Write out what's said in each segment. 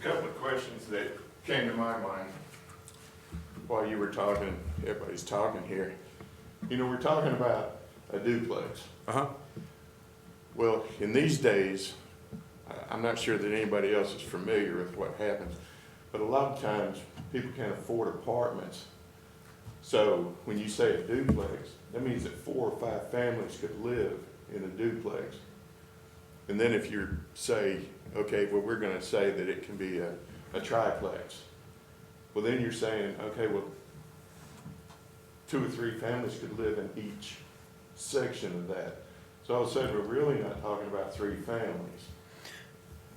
couple of questions that came to my mind while you were talking, everybody's talking here. You know, we're talking about a duplex. Uh-huh. Well, in these days, I- I'm not sure that anybody else is familiar with what happens, but a lot of times, people can't afford apartments. So when you say a duplex, that means that four or five families could live in a duplex. And then if you say, okay, well, we're gonna say that it can be a, a triplex, well, then you're saying, okay, well, two or three families could live in each section of that. So I was saying, we're really not talking about three families.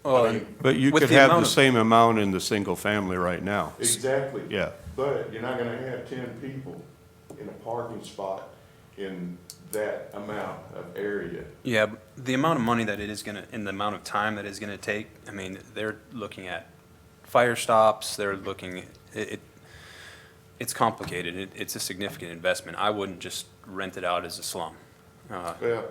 I mean, But you With could the have amount the of- same amount in the single family right now. Exactly. Yeah, But you're not gonna have ten people in a parking spot in that amount of area. Yeah, b- the amount of money that it is gonna, and the amount of time that it's gonna take, I mean, they're looking at fire stops, they're looking, it, it, it's complicated, it, it's a significant investment. I wouldn't just rent it out as a slum. Uh, Well,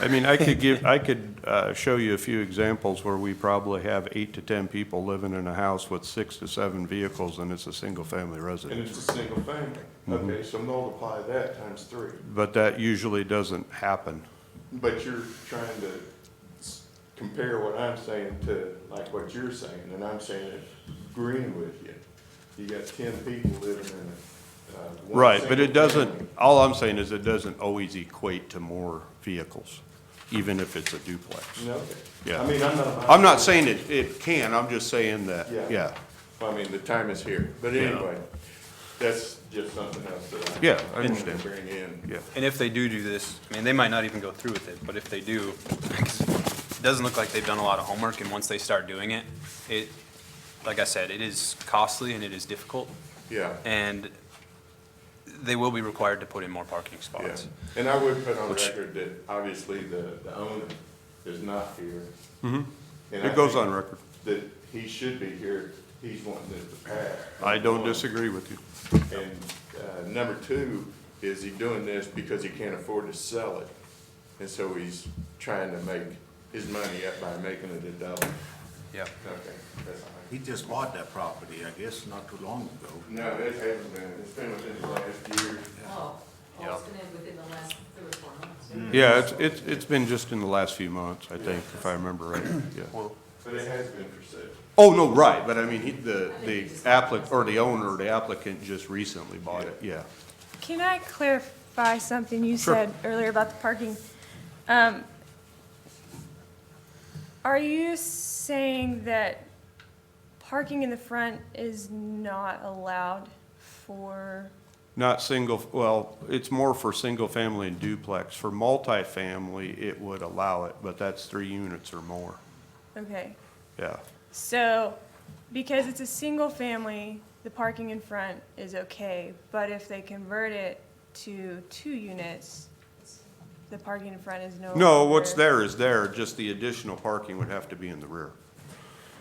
I mean, I could give, I could uh, show you a few examples where we probably have eight to 10 people living in a house with six to seven vehicles, and it's a single-family and residence. it's a single family. Okay, so multiply that times three. But that usually doesn't happen. But you're trying to s- compare what I'm saying to like what you're saying, and I'm saying it agreeing with you. You got ten people living in a, uh, one Right, but it single doesn't, family. all I'm saying is it doesn't always equate to more vehicles, even if it's a duplex. No, Yeah. I mean, I'm not. I'm not saying it, it can, I'm just saying that, Yeah. yeah. I mean, the time is here, but Yeah. anyway, that's just something else that I. Yeah, I wanted to understand. Bring in. Yeah. And if they do do this, I mean, they might not even go through with it, but if they do, 'cause it doesn't look like they've done a lot of homework, and once they start doing it, it, like I said, it is costly and it is difficult, Yeah, and they will be required to put in more parking yeah. spots. And I would put on Which- record that obviously the, the owner is not here. And I Mm-hmm. It goes think on record. That he should be here. He's wanting this to pass. I don't One. disagree with you. And, uh, number two, is he doing this because he can't afford to sell it? And so he's trying to make his money up by making it a double. Yeah. Okay, that's all. He just bought that property, I guess, not too long ago. No, it hasn't been, it's been within the last year. Oh, Yeah. well, it's been in within the last three or four months. Yeah, it's, it's, it's been just in the last few months, I think, if I remember right, yeah. But it has been for sale. Oh, no, right, but I mean, he, the, the applicant, or the owner, the applicant just recently bought it, yeah. Can I clarify something you Sure. said earlier about the parking? Um, Are you saying that parking in the front is not allowed for, Not single, well, it's more for single-family and duplex. For multifamily, it would allow it, but that's three units or more, okay. yeah. So, because it's a single family, the parking in front is okay, but if they convert it to two units, the parking in front is no longer. No, what's there is there, just the additional parking would have to be in the rear.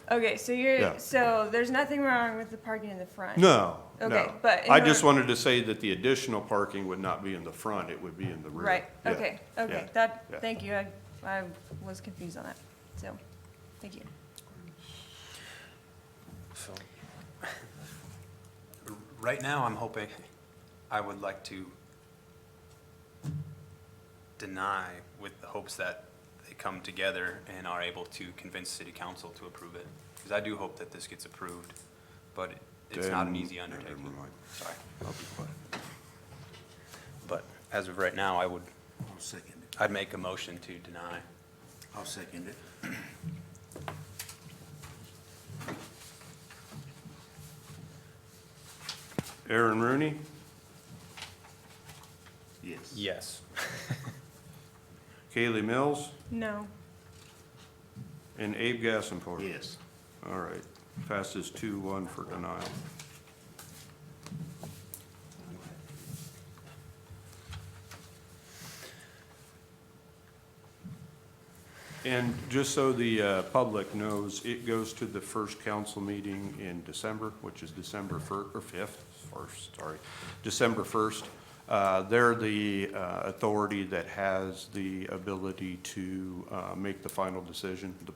Okay, so Yeah. you're, so there's nothing wrong with the parking in the front? No, Okay, no. but in I just her- wanted to say that the additional parking would not be in the front, it would be in the rear. Right, Yeah, okay, okay, yeah, that, yeah. thank you, I, I was confused on that, so, thank you. So, Right now, I'm hoping, I would like to deny with the hopes that they come together and are able to convince city council to approve it. Because I do hope that this gets approved, but it- it's not an Then- easy undertaking. never mind. Sorry. I'll be quiet. But as of right now, I would, I'll second it, I'd make a motion to deny. I'll second it. Aaron Rooney, Yes. Yes. Kaylee Mills, No, and Abe Gassenport. Yes. All right, passes two one for denial. And just so the uh, public knows, it goes to the first council meeting in December, which is December fir, or fifth, first, sorry, December first. Uh, They're the uh, authority that has the ability to uh, make the final decision. The